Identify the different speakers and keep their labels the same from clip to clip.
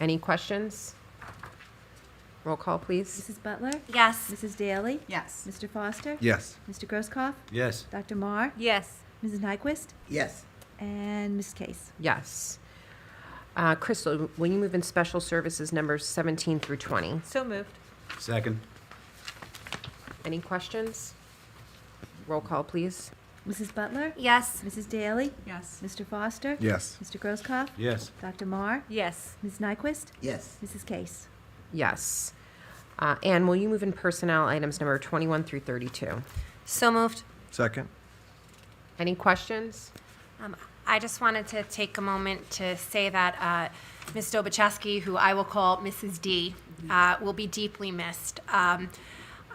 Speaker 1: Any questions? Roll call, please.
Speaker 2: Mrs. Butler?
Speaker 3: Yes.
Speaker 2: Mrs. Daly?
Speaker 3: Yes.
Speaker 2: Mr. Foster?
Speaker 4: Yes.
Speaker 2: Mr. Grosskopf?
Speaker 4: Yes.
Speaker 2: Dr. Marr?
Speaker 3: Yes.
Speaker 2: Mrs. Nyquist?
Speaker 5: yes,
Speaker 2: And Ms. Case?
Speaker 1: Yes. Uh, Crystal, will you move in special services numbers 17 through 20?
Speaker 3: So moved.
Speaker 4: Second.
Speaker 1: Any questions? Roll call, please.
Speaker 2: Mrs. Butler?
Speaker 3: Yes.
Speaker 2: Mrs. Daly?
Speaker 3: Yes.
Speaker 2: Mr. Foster?
Speaker 4: Yes.
Speaker 2: Mr. Grosskopf?
Speaker 4: Yes.
Speaker 2: Dr. Marr?
Speaker 3: Yes.
Speaker 2: Ms. Nyquist?
Speaker 5: yes,
Speaker 2: Mrs. Case?
Speaker 1: Yes. Uh, Anne, will you move in personnel items number 21 through 32?
Speaker 3: So moved.
Speaker 4: Second.
Speaker 1: Any questions?
Speaker 6: Um, I just wanted to take a moment to say that uh, Ms. Dobuchowski, who I will call Mrs. D, uh, will be deeply missed. Um,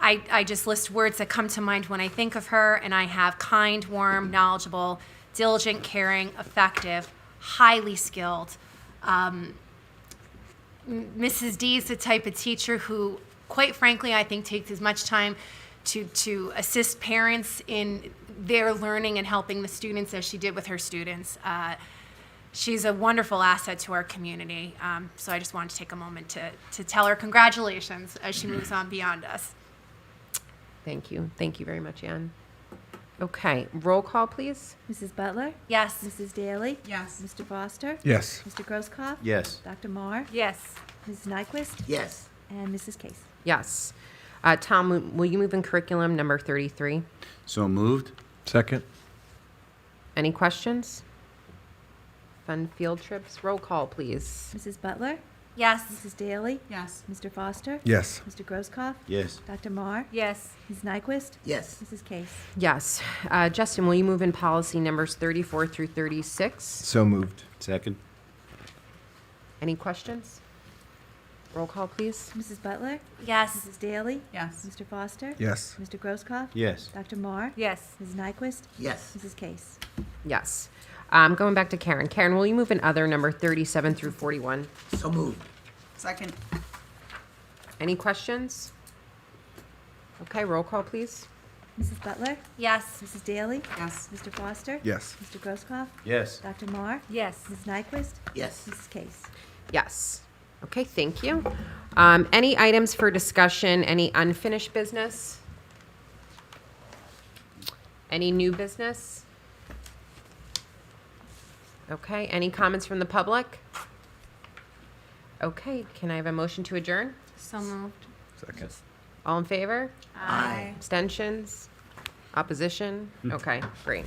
Speaker 6: I, I just list words that come to mind when I think of her, and I have kind, warm, knowledgeable, diligent, caring, effective, highly skilled. Um, Mrs. D is the type of teacher who, quite frankly, I think takes as much time to, to assist parents in their learning and helping the students as she did with her students. Uh, she's a wonderful asset to our community. Um, so I just wanted to take a moment to, to tell her congratulations as she moves on beyond us.
Speaker 1: Thank you. Thank you very much, Anne. Okay, roll call, please.
Speaker 2: Mrs. Butler?
Speaker 6: Yes.
Speaker 2: Mrs. Daly?
Speaker 3: Yes.
Speaker 2: Mr. Foster?
Speaker 4: Yes.
Speaker 2: Mr. Grosskopf?
Speaker 4: Yes.
Speaker 2: Dr. Marr?
Speaker 3: Yes.
Speaker 2: Mrs. Nyquist?
Speaker 5: yes,
Speaker 2: And Mrs. Case?
Speaker 1: Yes. Uh, Tom, will- will you move in curriculum number 33?
Speaker 4: So moved. Second.
Speaker 1: Any questions? Fun field trips. Roll call, please.
Speaker 2: Mrs. Butler?
Speaker 6: Yes.
Speaker 2: Mrs. Daly?
Speaker 3: Yes.
Speaker 2: Mr. Foster?
Speaker 4: Yes.
Speaker 2: Mr. Grosskopf?
Speaker 4: Yes.
Speaker 2: Dr. Marr?
Speaker 3: Yes.
Speaker 2: Ms. Nyquist?
Speaker 5: yes,
Speaker 2: Mrs. Case?
Speaker 1: Yes. Uh, Justin, will you move in policy numbers 34 through 36?
Speaker 4: So moved. Second.
Speaker 1: Any questions? Roll call, please.
Speaker 2: Mrs. Butler?
Speaker 6: Yes.
Speaker 2: Mrs. Daly?
Speaker 3: Yes.
Speaker 2: Mr. Foster?
Speaker 4: Yes.
Speaker 2: Mr. Grosskopf?
Speaker 4: Yes.
Speaker 2: Dr. Marr?
Speaker 3: Yes.
Speaker 2: Ms. Nyquist?
Speaker 5: yes,
Speaker 2: Mrs. Case?
Speaker 1: Yes. Um, going back to Karen. Karen, will you move in other number 37 through 41?
Speaker 5: so moved,
Speaker 3: Second.
Speaker 1: Any questions? Okay, roll call, please.
Speaker 2: Mrs. Butler?
Speaker 6: Yes.
Speaker 2: Mrs. Daly?
Speaker 3: Yes.
Speaker 2: Mr. Foster?
Speaker 4: Yes.
Speaker 2: Mr. Grosskopf?
Speaker 4: Yes.
Speaker 2: Dr. Marr?
Speaker 3: Yes.
Speaker 2: Ms. Nyquist?
Speaker 5: yes,
Speaker 2: Mrs. Case?
Speaker 1: Yes. Okay, thank you. Um, any items for discussion? Any unfinished business? Any new business? Okay, any comments from the public? Okay, can I have a motion to adjourn?
Speaker 6: So moved.
Speaker 4: Second.
Speaker 1: All in favor?
Speaker 6: Aye.
Speaker 1: Abstentions? Opposition? Okay, great.